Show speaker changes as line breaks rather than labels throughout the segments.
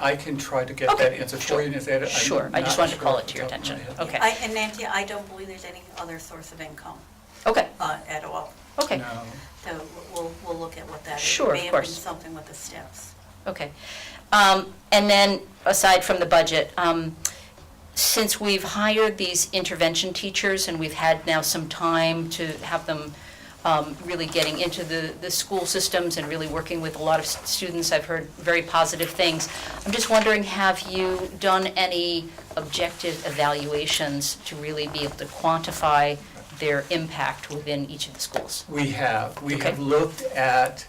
I can try to get
Okay,
that answer for
sure.
you. and is that- I'm
Sure, I just
not
wanted to call
sure
it to your
off the top of my
attention.
head.
Okay.
I- And Nancy, I don't believe there's any other source of income
Okay,
uh, at all.
okay,
No.
So we'll, we'll look at what that is.
Sure, of
It may have been
course.
something with the steps.
okay. Um, And then, aside from the budget, um, since we've hired these intervention teachers and we've had now some time to have them um, really getting into the, the school systems and really working with a lot of s- students, I've heard very positive things. I'm just wondering, have you done any objective evaluations to really be able to quantify their impact within each of the schools?
We have. We have
Okay.
looked at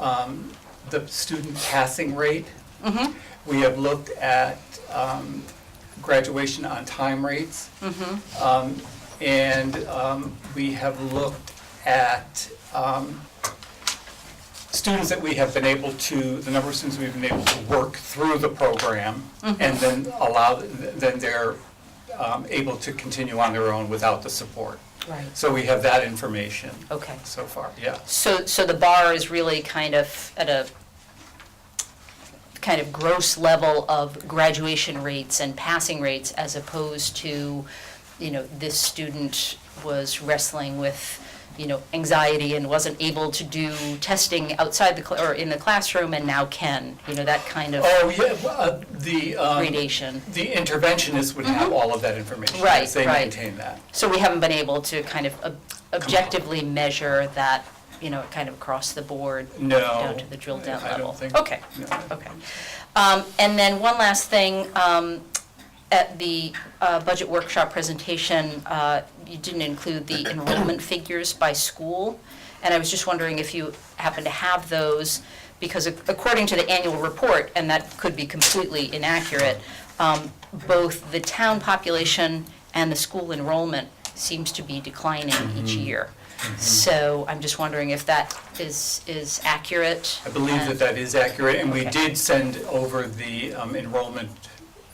um, the student passing rate.
Mhm.
We have looked at um, graduation on time rates.
Mm-hmm.
Um, And um, we have looked at um, students that we have been able to, the number of students we've been able to work through the program
Mm-hmm.
and then allow, then they're um, able to continue on their own without the support.
Right.
So we have that information
Okay.
so far, yeah.
So, so the bar is really kind of at a kind of gross level of graduation rates and passing rates as opposed to, you know, this student was wrestling with, you know, anxiety and wasn't able to do testing outside the, cl- or in the classroom and now can, you know, that kind of
Oh, yeah, well, uh, the, um,
gradation.
the interventionist would have all of that information.
Mm-hmm. Right,
as They
right.
maintain that.
So we haven't been able to kind of ob- objectively measure that, you know, kind of across the board.
No.
Down to the drill down
I don't
level.
think-
Okay,
no, I don't
okay. Um, And then one last thing, um, at the uh, budget workshop presentation, uh, you didn't include the enrollment figures by school, and I was just wondering if you happen to have those, because ac- according to the annual report, and that could be completely inaccurate, um, both the town population and the school enrollment seems to be declining each
Mm-hmm.
year. So I'm just wondering if that is, is accurate.
I believe that
and-
that is accurate, and we
Okay.
did send over the um, enrollment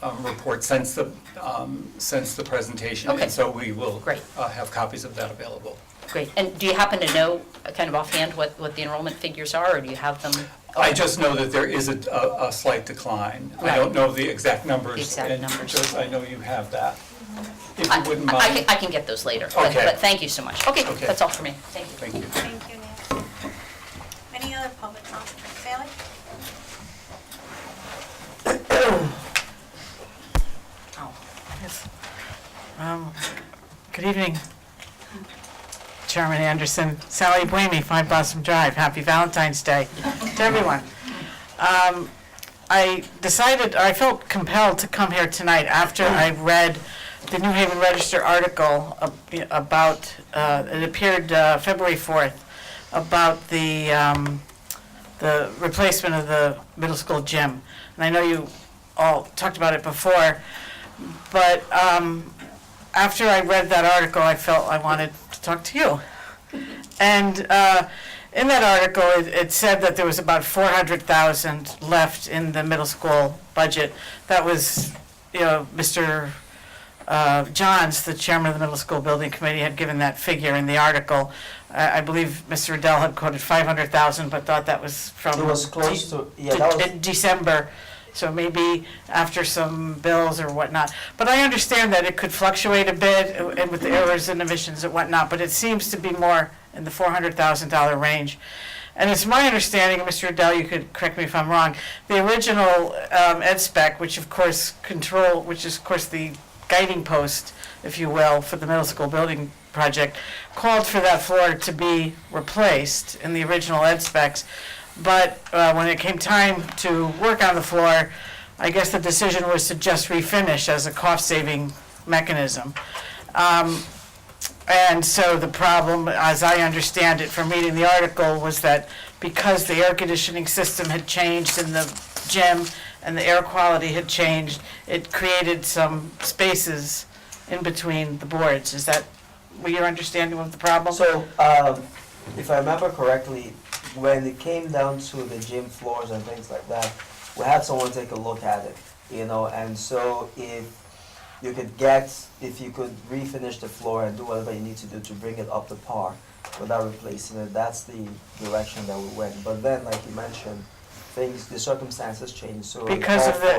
um, report since the, um, since the presentation.
Okay.
And so we will
Great.
uh, have copies of that available.
Great, and do you happen to know, uh, kind of offhand, what, what the enrollment figures are, or do you have them?
I just know that there is a- a a slight decline. I
Right.
don't know the exact numbers.
Exact
and
numbers.
Joyce, I know you have that, if
I-
you wouldn't
I- I can-
mind.
I can get those later, but,
Okay.
but thank you so much. Okay,
Okay.
that's all for me, thank you.
Thank you.
Thank you, Nancy. Any other public comment? Sally?
Oh,
Yes. Um, Good evening, Chairman Anderson. Sally Blamey, 5 Blossom Drive. Happy Valentine's Day to everyone. Um, I decided, I felt compelled to come here tonight after I read the New Haven Register article ab- about, uh, it appeared uh, February 4th, about the, um, the replacement of the middle school gym. And I know you all talked about it before, but um, after I read that article, I felt I wanted to talk to you. And uh, in that article, it, it said that there was about 400,000 left in the middle school budget. That was, you know, Mr. Uh, Johns, the chairman of the middle school building committee, had given that figure in the article. I, I believe Mr. Riddell had quoted 500,000, but thought that was from.
It was
de-
close to, yeah, that was,
in December, so maybe after some bills or whatnot. But I understand that it could fluctuate a bit uh, and with the errors and emissions and whatnot, but it seems to be more in the four hundred thousand dollar range. And it's my understanding, and Mr. Adele, you could correct me if I'm wrong, the original um, ed spec, which of course control, which is of course the guiding post, if you will, for the middle school building project, called for that floor to be replaced in the original ed specs. But uh, when it came time to work on the floor, I guess the decision was to just refinish as a cost-saving mechanism. Um, And so the problem, as I understand it from reading the article, was that because the air conditioning system had changed in the gym and the air quality had changed, it created some spaces in between the boards. Is that your understanding of the problem?
so, um, if I remember correctly, when it came down to the gym floors and things like that, we had someone take a look at it, you know, and so if you could get, if you could refinish the floor and do whatever you need to do to bring it up to par without replacing it, that's the direction that we went. But then, like you mentioned,
things, the circumstances change, so. it
Because of
all
the